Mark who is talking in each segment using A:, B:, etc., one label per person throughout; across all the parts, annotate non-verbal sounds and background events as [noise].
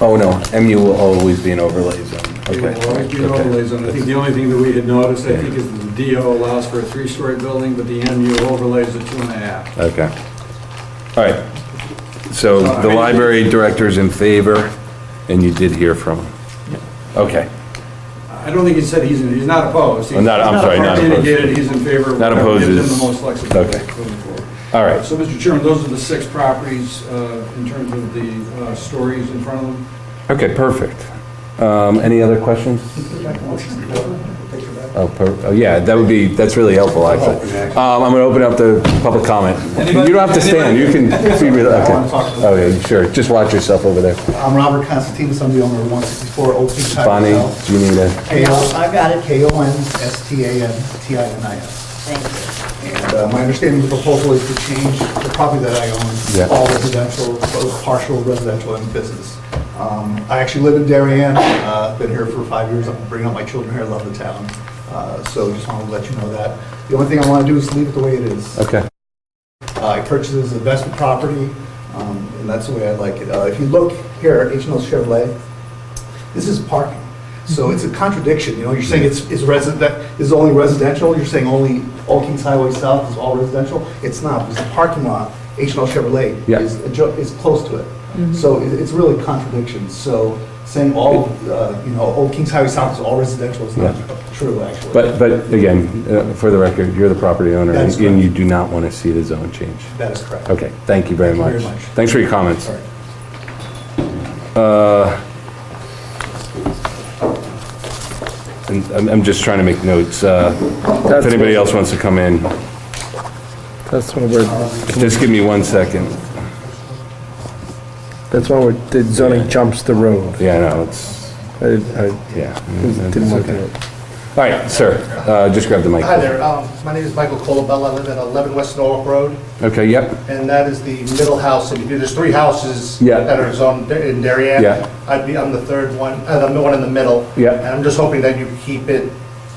A: Oh, no, MU will always be an overlay zone.
B: It
A: Okay.
B: will always be an
A: okay.
B: overlay zone. I think the only thing that we had noticed, I think, is that the DO allows for a three-story building, but the MU overlays a two and a half.
A: Okay. All right. So the library director's in favor, and you did hear from him. Okay.
B: I don't think he said he's, in- he's not opposed. He's-
A: I'm not- I'm sorry, not
B: He
A: opposed.
B: indicated he's in favor. of
A: Not
B: whatever
A: opposed is-
B: Gives him the most flexibility.
A: okay.
B: going forward.
A: All right.
B: So, Mr. Chairman, those are the six properties uh, in terms of the uh, stories in front of them.
A: Okay, perfect. Um, Any other questions? Oh, per- oh, yeah, that would be, that's really helpful, actually. Um, I'm going to open up the public comment. You don't have to stand, you can be real, okay. Okay, sure, just watch yourself over there.
C: I'm Robert Constantine, I'm the owner of 164 Old Street. Tire
A: Bonnie,
C: Shop.
A: do you need a,
C: K-O- I got it, K-O-N-S-T-A-N-T-I-N-I-S.
D: Thank you.
C: And uh, my understanding of the proposal is to change the property that I
A: Yeah.
C: own, all residential, both partial residential and business. Um, I actually live in Darien, uh, been here for five years, I'm bringing up my children here, I love the town. Uh, So just wanted to let you know that. The only thing I want to do is leave it the way it is.
A: okay.
C: Uh, I purchased this investment property, um, and that's the way I like it. Uh, If you look here at H and L Chevrolet, this is parking. So
A: Mm-hmm.
C: it's a contradiction, you know, you're saying it's, is resident, is only residential, you're saying only All Kings Highway South is all residential? It's not, because the parking lot, H and L Chevrolet
A: Yeah. Mm-hmm.
C: is, adjo- is close to it. So it- it's really a contradiction, so saying all, uh, you know, Old Kings Highway South is all residential is not
A: Yeah.
C: true, actually.
A: But, but again, uh, for the record, you're the property owner,
C: That's
A: and you
C: correct.
A: do not want to see the zone change.
C: That is correct.
A: Okay, thank you very
C: Thank you
A: much.
C: very much.
A: Thanks for your comments.
C: Sorry.
A: And I'm, I'm just trying to make notes. uh, If
E: That's-
A: anybody else wants to come in,
E: That's when we're,
A: just give me one second.
E: that's when we're, the zoning jumps the road.
A: Yeah, I know, it's,
E: I, I
A: yeah.
E: didn't look at it.
A: All right, sir, uh, just grab the mic.
F: Hi there, um, my name is Michael Colabella, I live at 11 West Norwalk Road,
A: Okay, yep,
F: and that is the middle house, and there's three houses
A: Yeah.
F: that are zoned in Darien.
A: Yeah.
F: I'd be, I'm the third one, and I'm the one in the middle.
A: Yeah.
F: And I'm just hoping that you keep it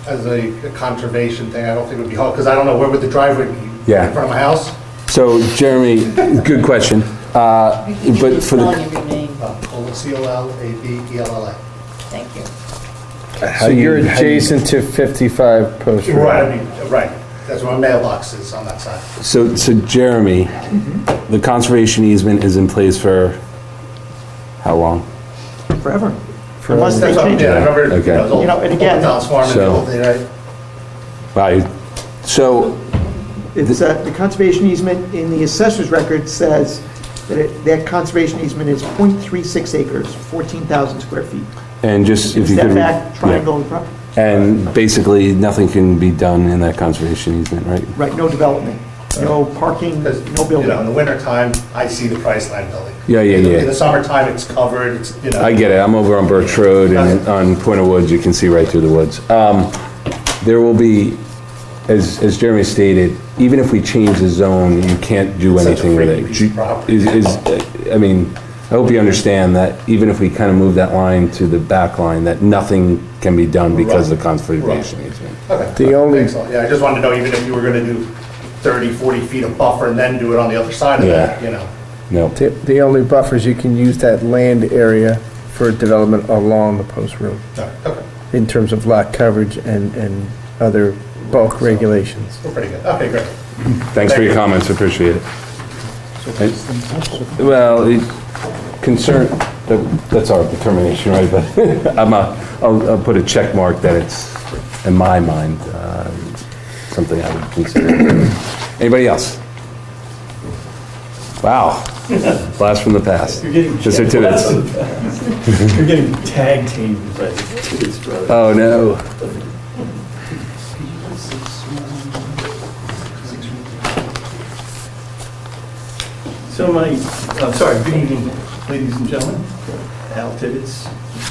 F: as a conservation thing, I don't think it would be hard, because I don't know where would the driveway be?
A: Yeah.
F: In front of my house?
A: so Jeremy, good question. Uh, But for
D: Spelling
A: the,
D: every name,
F: Uh, Col- E C-O-L-A-B-E-L-L-A.
D: thank you.
A: how
E: So
A: do you-
E: you're
A: how do you-
E: adjacent to 55 Post Road.
F: Right, I mean, right, that's where my mailbox is on that side.
A: So, so Jeremy, the conservation easement is in place for how long?
G: forever.
F: Unless they change it. I remember,
A: Okay.
F: you know, it was
G: You know,
F: old- old
G: and again-
F: Don's Farm and the
A: So-
F: whole thing, right?
A: Right, so,
G: It's, uh, the conservation easement in the assessor's record says that it- that conservation easement is .36 acres, 14,000 square feet.
A: and just if you could.
G: Step
A: re-
G: back,
A: yeah.
G: triangle, pro-
A: And basically, nothing can be done in that conservation easement, right?
G: right, no development, no parking,
F: Because,
G: no
F: You know, in the
G: building.
F: wintertime, I see the Priceline building.
A: Yeah, yeah,
F: In the-
A: yeah.
F: In the summertime, it's covered, it's, you know.
A: I get it, I'm over on Birch Road and on Point of Woods, you can see right through the woods. Um, There will be, as, as Jeremy stated, even if we change the zone, you can't do
F: Such a
A: anything with it.
F: freak piece of property.
A: Is, is, I mean, I hope you understand that even if we kind of move that line to the back line, that nothing can be done because of the conservation easement.
E: The only,
F: Thanks a lot. Yeah, I just wanted to know even if you were gonna do 30, 40 feet of buffer and then do it on the other side of that,
A: Yeah.
F: you know?
A: No,
E: the the only buffers, you can use that land area for development along the Post Road
F: No, Okay,
E: in terms of lot coverage and, and other bulk regulations.
F: we're pretty good. Okay, great.
A: thanks for your comments, appreciate it. And- Well, it- concern, that- that's our determination, right? But [laughs] I'm a, I'll, I'll put a check mark that it's, in my mind, uh, something I would consider. Anybody else? Wow, blast from the past.
H: You're getting
A: Just
H: checked.
A: two minutes.
H: You're getting tag teamed by his brother.
A: Oh, no.
H: So my, I'm sorry, good evening, ladies and gentlemen. Al Tibbetts,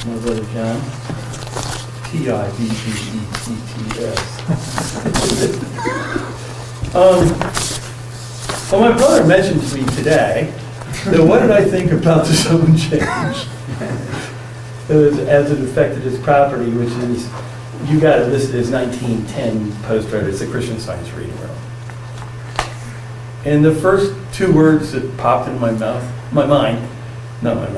H: my brother John. E T-I-B-B-E-T-T-S. [laughs] Um, Well, my brother mentioned to me today, that what did I think about the zone change? It was as it affected his property, which is, you got it listed as 1910 Post Road, it's a Christian Science Reading Room. And the first two words that popped in my mouth, my mind, not my mouth.